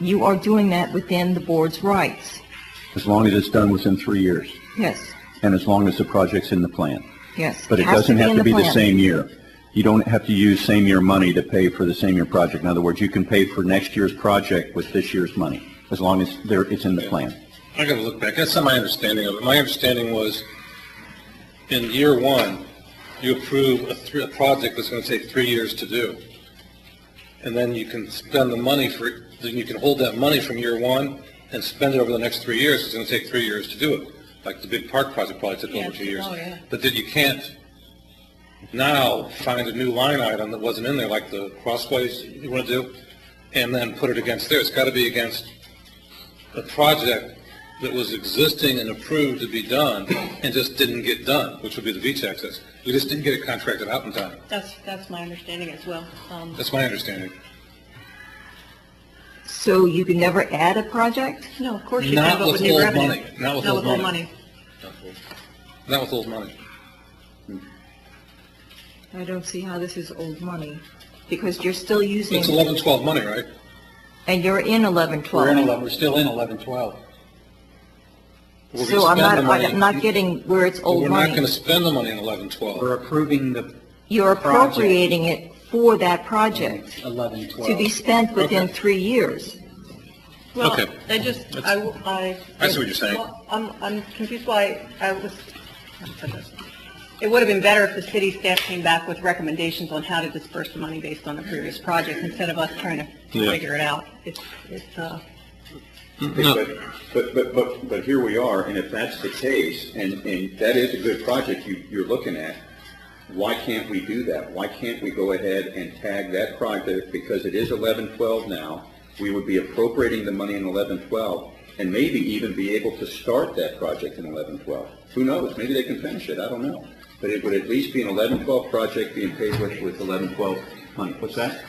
You are doing that within the board's rights. as long as it's done within three years, Yes, and as long as the project's in the plan. yes. But it Has doesn't have in to be the plan. same year. You don't have to use same year money to pay for the same year project. In other words, you can pay for next year's project with this year's money, as long as there, it's in the plan. I gotta look back. That's not my understanding of it. My understanding was in year one, you approve a, three, a project that's gonna take three years to do. And then you can spend the money for, then you can hold that money from year one and spend it over the next three years. It's gonna take three years to do it. Like the big park project probably took over two years. But then you can't now find a new line item that wasn't in there, like the crossways you wanna do, and then put it against there. It's gotta be against a project that was existing and approved to be done and just didn't get done, which would be the beach access. We just didn't get it contracted out in time. That's, that's my understanding as well. Um, That's my understanding. So you can never add a project? No, of course you Not can, but with with new old revenue. money. Not with old money. old money. Not with old money. I don't see how this is old money, because you're still using, It's 11, 12 money, right? and you're in eleven twelve. we're still in 11, 12. We're gonna So I'm spend not, the money- I'm not getting where it's but old We're not going to money. spend the money in 11, 12. We're approving the You're project. appropriating it for that project, eleven to be twelve. spent within three years. Well, Okay. I just, I, w- I. I see what you're saying. Well, I'm, I'm confused why I was, I said this. it would have been better if the city staff came back with recommendations on how to disperse the money based on the previous project instead of us trying to Yeah. figure it out. It's, it's, uh, But, but, but, but here we are, and if that's the case, and, and that is a good project you, you're looking at, why can't we do that? Why can't we go ahead and tag that project, because it is eleven twelve now, we would be appropriating the money in eleven twelve, and maybe even be able to start that project in eleven twelve. Who knows, maybe they can finish it, I don't know. But it would at least be an eleven twelve project being paid with, with eleven twelve money. What's that?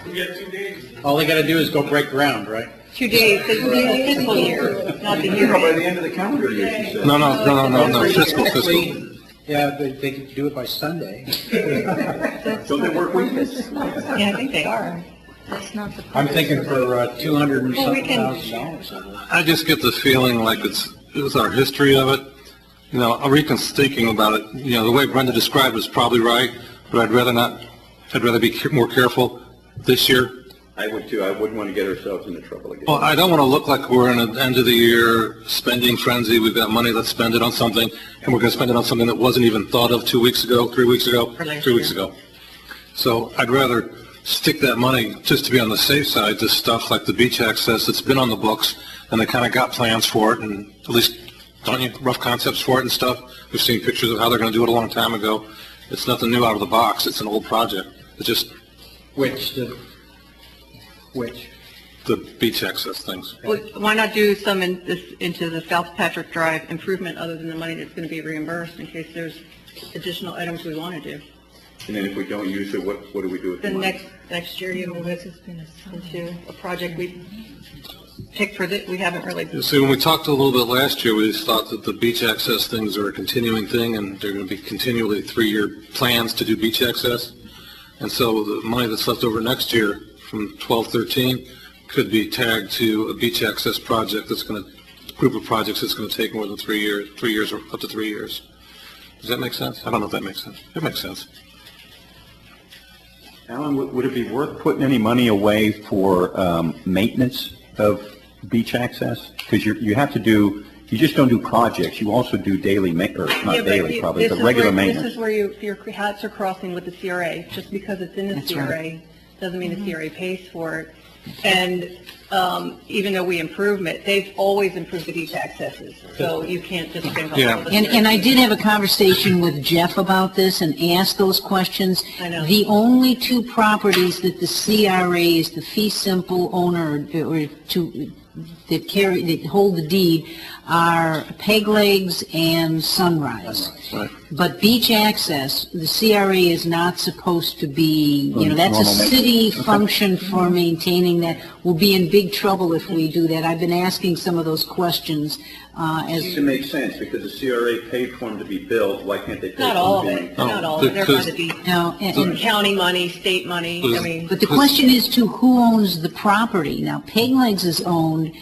All they gotta do is go break ground, right? two days, this is fiscal year, not the year. By end. the end of the calendar year, she said. No, no, no, no, no, no, fiscal, fiscal. Technically, Yeah, they, they could do it by Sunday. Don't they work weekends? Yeah, I think they are. That's not the. I'm thinking for uh, two hundred and Well, we something can- thousand dollars. I believe. I just get the feeling like it's, it was our history of it. You know, I'm even thinking about it, you know, the way Brenda described it is probably right, but I'd rather not, I'd rather be ca- more careful this year. I would too. I wouldn't want to get ourselves into trouble again. Well, I don't want to look like we're in an end of the year spending frenzy, we've got money, let's spend it on something, and we're going to spend it on something that wasn't even thought of two weeks ago, three weeks ago, For last three weeks year. ago. So I'd rather stick that money, just to be on the safe side, to stuff like the beach access that's been on the books, and they kind of got plans for it, and at least, don't you, rough concepts for it and stuff. We've seen pictures of how they're going to do it a long time ago. It's nothing new out of the box, it's an old project. It's just Which, the, which, the beach access things. Well, why not do some in this, into the South Patrick Drive improvement other than the money that's going to be reimbursed in case there's additional items we want to do? And then if we don't use it, what, what do we do with the Then money? next, next year, you move it into a project we picked for that, we haven't really, You See, when we talked a little bit last year, we thought that the beach access things are a continuing thing, and they're going to be continually three-year plans to do beach access. And so the money that's left over next year from 1213 could be tagged to a beach access project that's going to, group of projects that's going to take more than three years, three years or up to three years. Does that make sense? I don't know if that makes sense. It makes sense. Alan, would, would it be worth putting any money away for, um, maintenance of beach access? Because you, you have to do, you just don't do projects, you also do daily ma, or Yeah, not but daily you- probably, this but is regular where- This maintenance. is where you, your hats are crossing with the CRA. Just because it's in the CRA, Mm-hmm. doesn't mean the CRA pays for it. And um, even though we improve it, they've always improved the beach accesses, so you can't just bring up. all Yeah. the- And, and I did have a conversation with Jeff about this and asked those questions. I know. The only two properties that the CRA is the fee simple owner or to, that carry, that hold the deed are Peg Legs and Sunrise. Right. But beach access, the CRA is not supposed to be, you know, that's a Normal maintenance. city function for maintaining that. Will be in big trouble if we do that. I've been asking some of those questions uh, as It makes sense, because the CRA paid for them to be built, why can't they pay for them Not all of being it, Oh. not all of it, they're because- going to be No, and- and- county money, state money, I mean. But the question is to who owns the property? Now, Peg Legs is owned